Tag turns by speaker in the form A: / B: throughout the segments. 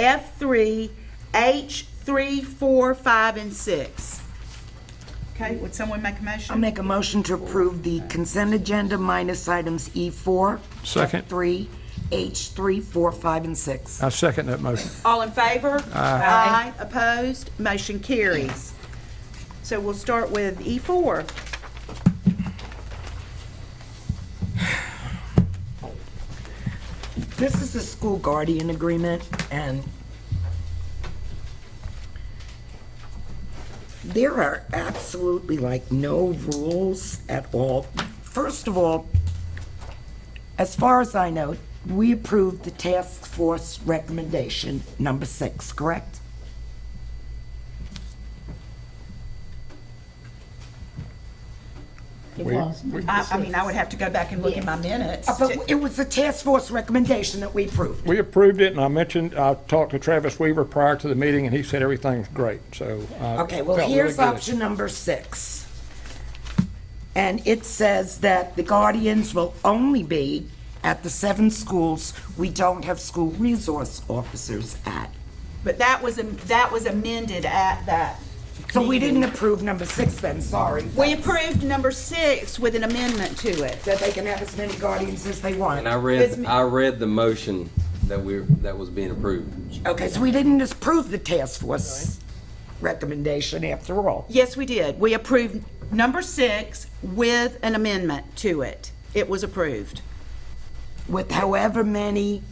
A: F three, H three, four, five, and six. Okay, would someone make a
B: I'll
A: motion?
B: make a motion to approve the consent agenda minus items E E4.
C: Second.
B: F3, H3, 4, 5, and 6.
C: I second that motion.
A: All in favor? Aye. opposed, motion carries. So we'll start with E four.
B: This is the school guardian agreement, and there are absolutely like no rules at all. First of all, as far as I know, we approved the task force recommendation number six, correct?
D: It was. number
A: I, I mean, I
D: six.
A: would have to go back and look at my minutes.
B: Uh, But it was the task force recommendation that we approved.
C: We approved it, and I mentioned, I talked to Travis Weaver prior to the meeting, and he said everything's great, so. I
B: Okay, well,
C: felt really
B: here's
C: good.
B: option number six. And it says that the guardians will only be at the seven schools we don't have school resource officers at.
A: But that was, am- that was amended at that.
B: So we didn't approve number six then, sorry.
A: We approved number six with an amendment to it.
B: That they can have as many guardians as they want.
E: And I
A: It's
E: read,
A: me-
E: I read the motion that we're, that was being approved.
B: Okay, so we didn't just approve the task force recommendation after all.
A: Yes, we did. We approved number six with an amendment to it. It was approved,
B: With however many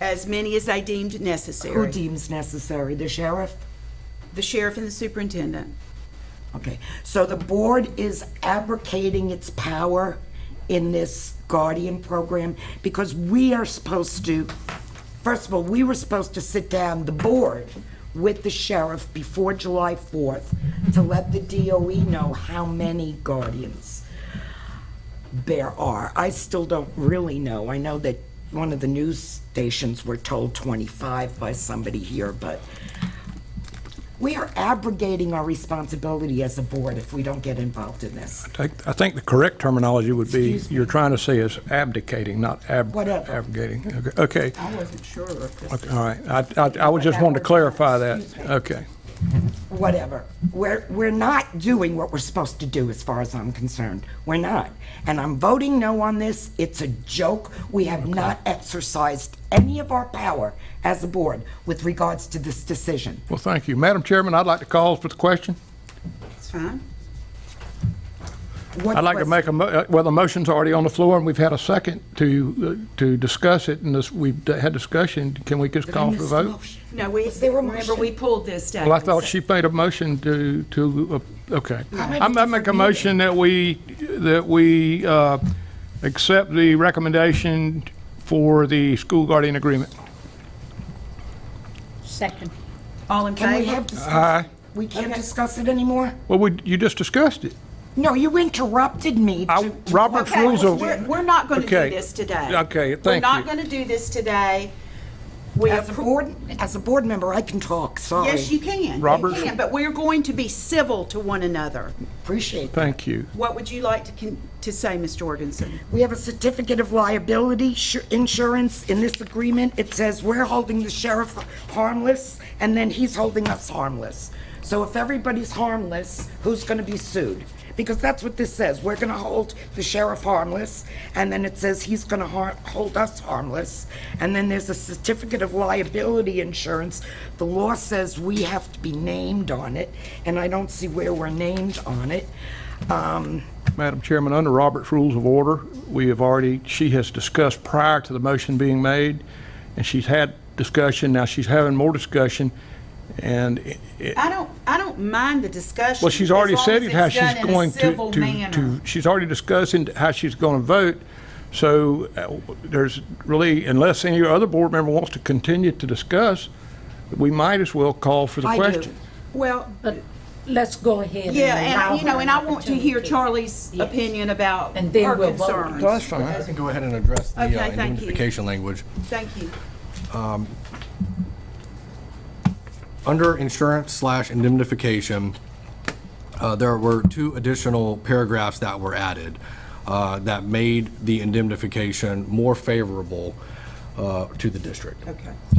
A: as many as they deemed
B: who
A: necessary.
B: deems necessary, the sheriff?
A: The sheriff and the superintendent.
B: Okay, so the board is abrogating its power in this guardian program because we are supposed to, first of all, we were supposed to sit down, the board, with the sheriff before July 4th to let the DOE know how many guardians there are. I still don't really know. I know that one of the news stations were told 25 by somebody here, but we are abrogating our responsibility as a board if we don't get involved in this.
C: I think- I think the correct terminology would be, you're trying to say is abdicating, not ab-
B: Whatever.
C: abrogating. Okay, Okay,
A: I wasn't sure if this.
C: all right. I, I, I was just wanting to clarify that. Okay.
B: Whatever. We're, we're not doing what we're supposed to do as far as I'm concerned. We're not. And I'm voting no on this. It's a joke. We have not exercised any of our power as a board with regards to this decision.
C: Well, thank you. Madam Chairman, I'd like to call for the question.
A: It's fine.
B: What
C: I'd like to
B: was-
C: make a, mo- uh, well, the motion's already on the floor, and we've had a second to, uh, to discuss it, and this, we've d- had discussion. Can we just
B: Did I
C: call for the
B: miss the
C: vote?
B: motion?
A: No, we,
B: Was there a
A: remember,
B: motion?
A: we pulled this down.
C: Well, I thought she made a motion to, to, uh, okay.
B: at
C: I'm,
B: a
C: I make a
B: different
C: motion that we, that we, uh, accept the recommendation for the school guardian agreement.
D: Second.
A: All in
B: Can we
A: favor?
B: have discussion? We can't discuss it anymore?
C: Well, we, you just discussed it.
B: No, you interrupted me.
C: I,
B: to-
C: Robert's
A: Okay,
C: rules of.
A: we're, we're not going to do
C: Okay.
A: this today.
C: Okay,
A: We're
C: thank
A: not
C: you.
A: going to do this today. We
B: As a
A: appro-
B: board, as a board member, I can talk, sorry.
A: Yes, you can. You
C: Robert?
A: can, but we're going to be civil to one another.
B: Appreciate that.
C: Thank you.
A: What would you like to, con- to say, Ms. Jorgensen?
B: We have a certificate of liability shu- insurance in this agreement. It says we're holding the sheriff harmless, and then he's holding us harmless. So if everybody's harmless, who's going to be sued? Because that's what this says. We're going to hold the sheriff harmless, and then it says he's going to hold us harmless. And then there's a certificate of liability insurance. The law says we have to be named on it, and I don't see where we're named on it. Um,
C: Madam Chairman, under Robert's Rules of Order, we have already, she has discussed prior to the motion being made, and she's had discussion, now she's having more discussion, and it- it-
A: I don't, I don't mind the discussion.
C: Well, she's
A: as
C: already
A: long
C: said
A: as
C: it,
A: it's
C: how she's
A: done in a
C: going to,
A: civil
C: to,
A: manner.
C: to, she's already discussing how she's going to vote. So uh, there's really, unless any other board member wants to continue to discuss, we might as well call for the
B: I do.
C: question.
A: Well,
D: But let's go ahead and.
A: yeah, and,
D: allow
A: I- you know,
D: her
A: and
D: an
A: I want to hear
D: opportunity.
A: Charlie's
D: Yes.
A: opinion about
D: And then
A: her
D: we'll vote.
A: concerns.
C: fine.
F: I can go ahead and address the
A: Okay,
F: uh,
A: thank you.
F: indemnification language.
A: Thank you.
F: Under insurance slash indemnification, uh, there were two additional paragraphs that were added uh, that made the indemnification more favorable uh, to the district.
A: Okay.